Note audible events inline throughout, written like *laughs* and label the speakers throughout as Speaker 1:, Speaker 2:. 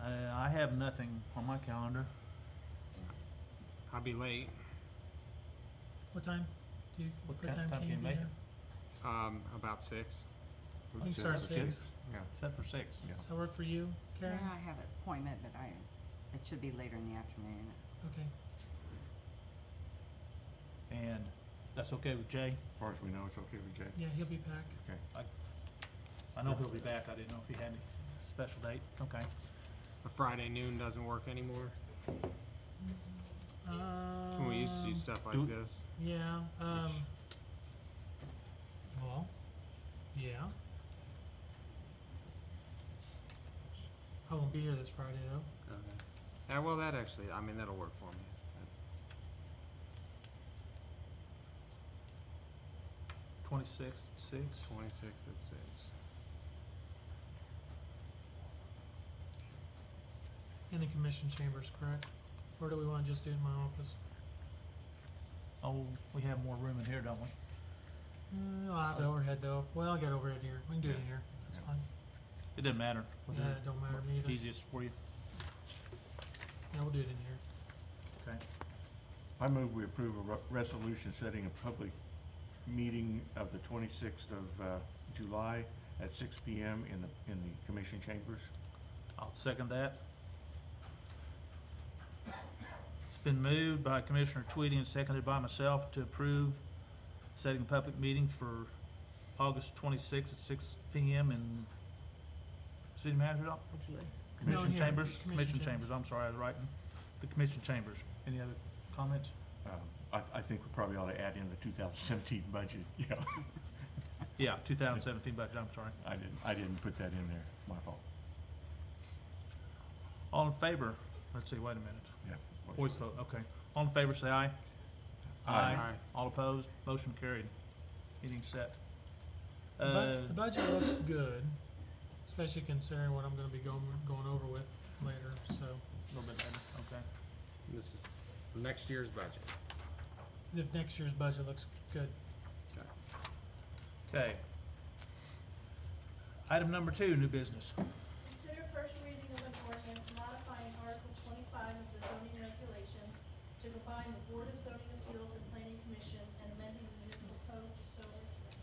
Speaker 1: Uh, I have nothing on my calendar.
Speaker 2: I'll be late.
Speaker 3: What time do you,
Speaker 1: What
Speaker 3: what
Speaker 1: ti-
Speaker 3: time can you be
Speaker 1: make
Speaker 3: there?
Speaker 2: Um, about six.
Speaker 3: You can start at
Speaker 1: Six.
Speaker 3: six.
Speaker 2: Yeah.
Speaker 1: Set for six.
Speaker 4: Yeah.
Speaker 3: Does that work for you,
Speaker 5: Yeah,
Speaker 3: Karen?
Speaker 5: I have an appointment, but I, it should be later in the afternoon.
Speaker 3: Okay.
Speaker 1: And that's okay with Jay?
Speaker 4: As far as we know, it's okay with Jay.
Speaker 3: Yeah, he'll be back.
Speaker 1: I know he'll be back. I didn't know if he had any special date. Okay.
Speaker 2: A Friday noon doesn't work anymore. When we used to do
Speaker 3: Um,
Speaker 2: stuff like
Speaker 1: do-
Speaker 2: this.
Speaker 3: Yeah, um. Well, yeah. I won't be here this Friday though.
Speaker 2: Yeah, well, that actually, I mean, that'll work for me.
Speaker 1: Twenty-six, six.
Speaker 2: Twenty-sixth at six.
Speaker 3: In the commission chambers, correct? Or do we wanna just do it in my office?
Speaker 1: Oh, we have more room in here, don't we?
Speaker 3: Mm, I have the overhead though. Well, I got overhead here. We can do it in here. That's
Speaker 4: Yeah.
Speaker 3: fine.
Speaker 1: It doesn't matter. We'll do
Speaker 3: Yeah, it don't matter to me either.
Speaker 1: Easiest for you.
Speaker 3: Yeah, we'll do it in here.
Speaker 1: Okay.
Speaker 4: I move we approve a re- resolution setting a public meeting of the 26th of uh, July at 6 PM in the, in the commission chambers.
Speaker 1: I'll second that. It's been moved by Commissioner Tweedy and seconded by myself to approve setting a public meeting for August twenty-sixth at six P M. in City Manager's office, Commission Chambers,
Speaker 3: here. Commission
Speaker 1: Commission
Speaker 3: chambers.
Speaker 1: Chambers, I'm sorry, I was writing, the Commission Chambers. Any other comments?
Speaker 4: Um, I, I think we probably ought to add in the 2017 budget. *laughs* Yeah,
Speaker 1: Yeah, two thousand seventeen budget, I'm sorry.
Speaker 4: I didn't, I didn't put that in there. My fault.
Speaker 1: All in favor, let's see, wait a minute,
Speaker 4: Yeah.
Speaker 1: voice vote, okay. All in favor, say aye.
Speaker 4: Aye.
Speaker 2: Aye.
Speaker 1: All opposed, motion carried. Meeting set.
Speaker 3: The bu-
Speaker 1: Uh,
Speaker 3: the budget looks good, especially considering what I'm gonna be going, going over with later, so.
Speaker 1: A little bit later, okay.
Speaker 2: And This is next year's budget.
Speaker 3: If next year's budget looks good,
Speaker 1: Okay. Item number two, new business.
Speaker 6: Consider first reading of an ordinance modifying Article twenty-five of the zoning regulations to combine the Board of Zoning Appeals and Planning Commission and amending the municipal code to so reflect.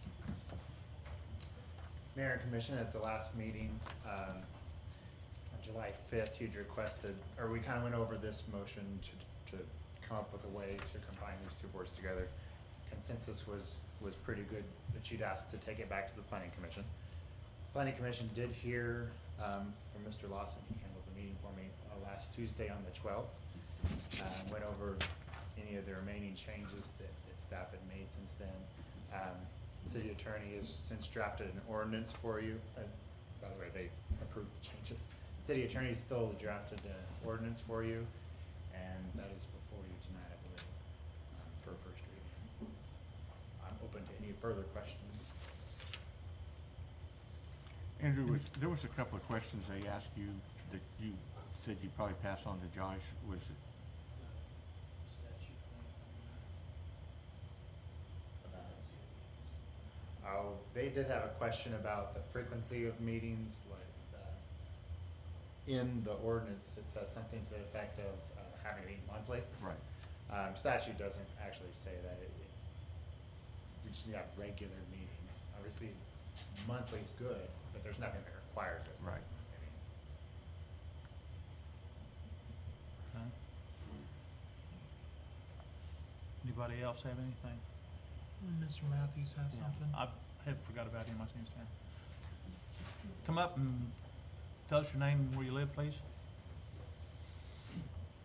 Speaker 7: Mayor and Commission, at the last meeting, um, on July fifth, you'd requested, or we kind of went over this motion to, to come up with a way to combine these two boards together. Consensus was, was pretty good, but you'd asked to take it back to the planning commission. Planning commission did hear, um, from Mr. Lawson, he handled the meeting for me, uh, last Tuesday on the twelfth. Uh, went over any of the remaining changes that, that staff had made since then. Um, city attorney has since drafted an ordinance for you, uh, by the way, they approved the changes. City attorney still drafted the ordinance for you, and that is before you tonight, I believe, um, for a first reading. I'm open to any further questions.
Speaker 4: Andrew, was, there was a couple of questions they asked you that you said you'd probably pass on to Josh. Was, it-
Speaker 7: Oh, they did have a question about the frequency of meetings, like, uh, in the ordinance, it says something to the effect of uh, having to meet monthly.
Speaker 4: right,
Speaker 7: Um, statute doesn't actually say that, it, it, we just need to have regular meetings. Obviously, monthly's good, but there's nothing that requires us. to have
Speaker 4: Right.
Speaker 7: meetings.
Speaker 1: Okay. Anybody else have anything?
Speaker 3: Mr. Matthews has something.
Speaker 1: I had forgot about him, I seen his name. Come up and tell us your name and where you live, please.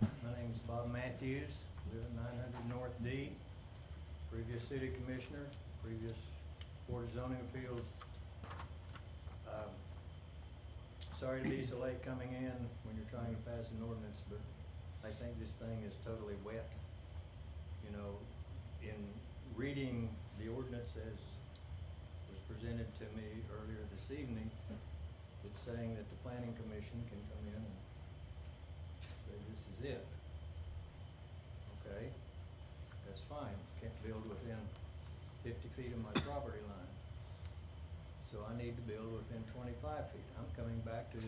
Speaker 8: My name is Bob Matthews, live at nine hundred North D. Previous city commissioner, previous board of zoning appeals. Um, Sorry to be so late coming in when you're trying to pass an ordinance, but I think this thing is totally wet. You know, in reading the ordinance as was presented to me earlier this evening, it's saying that the planning commission can come in and say this is it. Okay, that's fine, can't build within fifty feet of my property line. So I need to build within twenty-five feet. I'm coming back to the